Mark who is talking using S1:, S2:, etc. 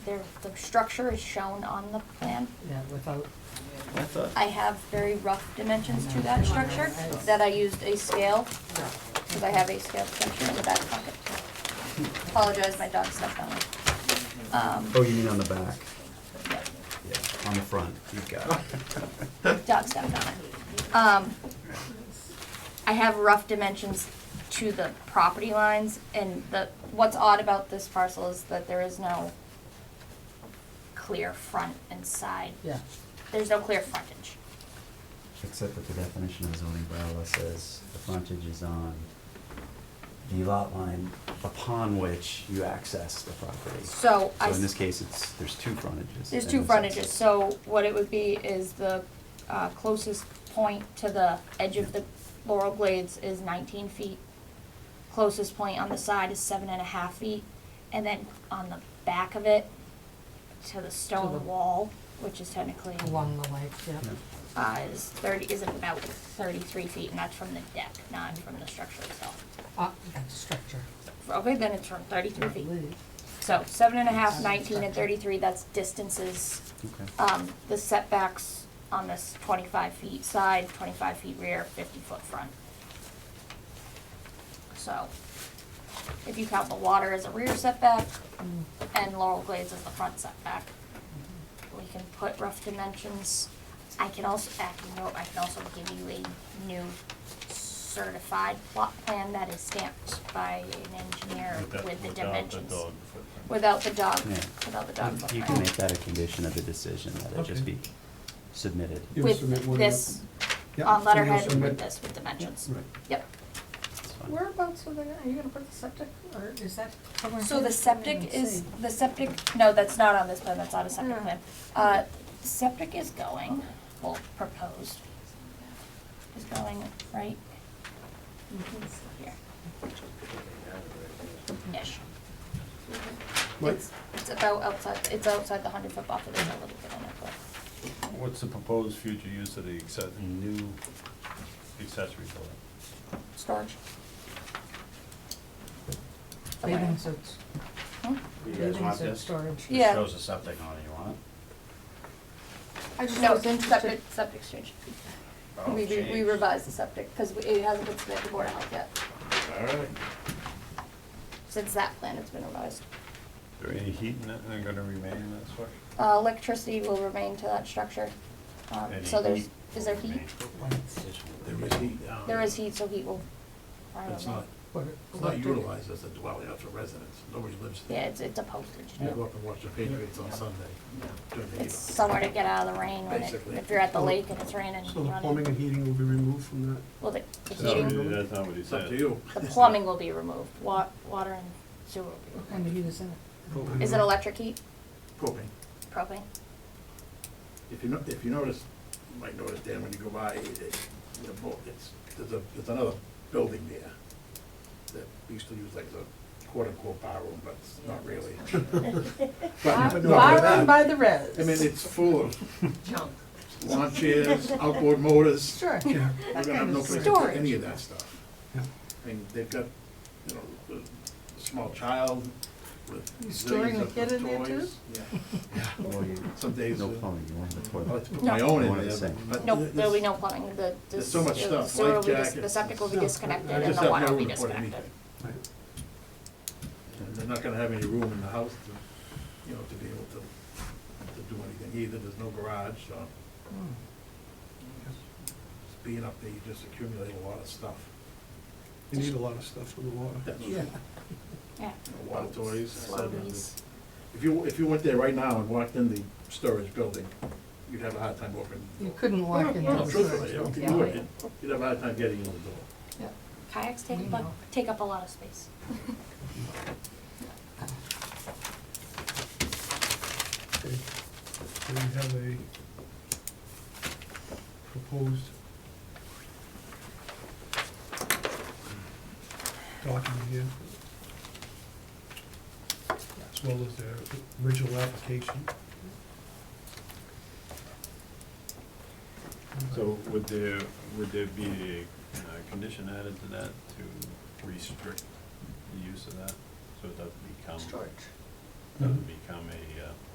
S1: There, the structure is shown on the plan.
S2: Yeah, without,
S3: I thought.
S1: I have very rough dimensions to that structure, that I used a scale, because I have a scale structure in the back pocket. Apologize, my dog stepped on it. Um,
S4: Oh, you mean on the back?
S1: yeah.
S4: Yeah, on the front, you've got it.
S1: dog stepped on it. Um, I have rough dimensions to the property lines, and the, what's odd about this parcel is that there is no clear front and side.
S2: yeah,
S1: There's no clear frontage.
S4: Except that the definition of zoning bylaw says the frontage is on the lot line upon which you access the property. So
S1: So I,
S4: in
S1: s-
S4: this case, it's, there's two frontages.
S1: there's
S4: and
S1: two
S4: it's-
S1: frontages, so what it would be is the uh, closest point to the edge of the Laurel Glades is nineteen feet. Closest point on the side is seven and a half feet, and then on the back of it, to the
S2: the-
S1: stone wall, which is technically,
S2: along the lake,
S4: Yeah.
S2: yeah.
S1: uh, is thirty, is about thirty-three feet, and that's from the deck, not from the structure itself.
S2: Uh, structure.
S1: Okay, then it's from thirty-three feet.
S2: Lake.
S1: So seven and a half, nineteen, and thirty-three, that's distances
S4: Okay.
S1: um, the setbacks on this twenty-five feet side, twenty-five feet rear, fifty foot front. So, if you count the water as a rear setback
S5: Mm.
S1: and Laurel Glades as the front setback, we can put rough dimensions. I can also, I can, I can also give you a new certified plot plan that is stamped by an engineer with the dimensions. Without the dog,
S4: Yeah.
S1: without the dog
S4: You
S1: footprint
S4: can make that a condition of the decision, that it just
S6: Okay.
S4: be submitted.
S6: You will submit
S1: with
S6: one
S1: this, on
S6: Yeah, and you'll
S1: Um, letterhead with
S6: submit-
S1: this, with dimensions.
S6: Right.
S1: Yep.
S4: It's fine.
S2: Whereabouts are they, are you gonna put the septic, or is that somewhere
S1: So the
S2: here? I didn't
S1: septic is,
S2: see.
S1: the septic, no, that's not on this plan, that's not a septic
S2: Yeah.
S1: plan. Uh, septic is going, well, proposed, is going right here. Ish.
S6: What-
S1: It's, it's about outside, it's outside the hundred foot buffer, there's a little bit in it, but.
S7: What's the proposed future use of the acce- new accessory building?
S1: Storage.
S2: Bathing suits,
S1: Hmm?
S4: You guys
S2: bathing
S4: want
S2: suit
S4: this?
S2: storage.
S1: Yeah.
S4: It shows the septic on it, you want
S2: I just
S1: No,
S2: was interested.
S1: septic, septic change.
S4: it?
S1: We,
S4: Oh,
S1: re- we
S4: jeez.
S1: revised the septic, because it hasn't been submitted to Board of Health yet.
S4: All right.
S1: Since that plan, it's been revised.
S7: Is there any heat in it, and gonna remain in that structure?
S1: Uh, electricity will remain to that structure. Um,
S7: Any
S1: so there's,
S7: heat
S1: is there
S7: will
S1: heat?
S7: remain.
S5: There is heat now.
S1: There is heat, so heat will. I don't
S5: It's
S1: know.
S5: not,
S2: What-
S5: it's
S2: what
S5: not
S2: did-
S5: utilized as a dwelling, that's a residence, nobody lives
S1: Yeah,
S5: there.
S1: it's, it's a postage
S5: You go
S1: stamp.
S5: up and watch the Patriots on Sunday during the
S1: It's
S5: heat.
S1: somewhere to get out of the rain when it,
S5: Basically.
S1: if you're at the lake and it's raining.
S6: So the
S1: running.
S6: plumbing and heating will be removed from that?
S1: Well, the, the
S7: That's not what
S1: heating,
S7: he- That's not what he
S5: It's up to
S7: said.
S5: you.
S1: the plumbing will be removed, wa- water and sewer will be
S2: What
S1: removed.
S2: kind of heat is in
S6: Propane.
S1: Is it electric heat,
S5: Propane.
S1: propane?
S5: If you know, if you notice, you might notice, Dan, when you go by, it, it- the bo- it's, there's a, there's another building there that we used to use like as a quote-unquote bar room, but it's not really. But-
S2: it?
S5: no, but
S2: Borrowed
S5: that-
S2: by the res.
S5: I mean, it's full of
S2: Junk.
S5: lawn chairs, outboard motors.
S2: Sure.
S6: Yeah.
S2: That
S5: We're gonna have
S2: kind
S5: no
S2: of
S5: place
S2: stuff.
S5: to put
S1: Storage.
S5: any of that stuff.
S6: Yeah.
S5: I mean, they've got, you know, a small child with
S2: You
S5: zillions
S2: storing a
S5: of
S2: kid in there
S5: toys.
S2: too?
S5: Yeah.
S4: Well, you-
S5: Some days, uh,
S4: No plumbing, you want the
S5: I like
S4: toilet.
S5: to put
S1: No.
S5: my own
S4: One of
S5: in
S4: the
S5: there,
S4: same.
S5: but.
S1: No,
S5: th-
S1: there'll be
S5: this-
S1: no plumbing, the, the
S5: There's so much
S1: sewer-
S5: stuff,
S1: sewer will be,
S5: life
S1: dis- the
S5: jackets,
S1: septic will be
S6: stuff.
S5: I
S1: disconnected and
S5: just
S1: the
S5: have
S1: water
S5: no
S1: will be
S5: room for
S1: disconnected.
S5: anything. And they're not gonna have any room in the house to, you know, to be able to, to do anything either, there's no garage, so.
S2: Hmm.
S5: just Being up there, you just accumulate a lot of stuff.
S6: You need a lot of stuff for the water.
S5: That's-
S6: Yeah.
S1: Yeah.
S5: you know, Water toys.
S1: Slurpees.
S5: If you, if you went there right now and walked in the storage building, you'd have a hard time opening. the
S2: You
S5: door.
S2: couldn't walk in.
S5: No,
S2: those
S5: truthfully,
S2: doors.
S5: you don't-
S2: Yeah.
S5: you wouldn't. You'd have a hard time getting in the door.
S2: Yeah.
S1: Kayaks
S2: We
S1: take, bu-
S2: know.
S1: take up a lot of space.
S6: Okay. So we have a proposed document here. As well as their original application.
S7: So would there, would there be a uh, condition added to that to restrict the use of that, so it doesn't become?
S2: Storage.
S6: Mm-hmm.
S7: doesn't become a, uh,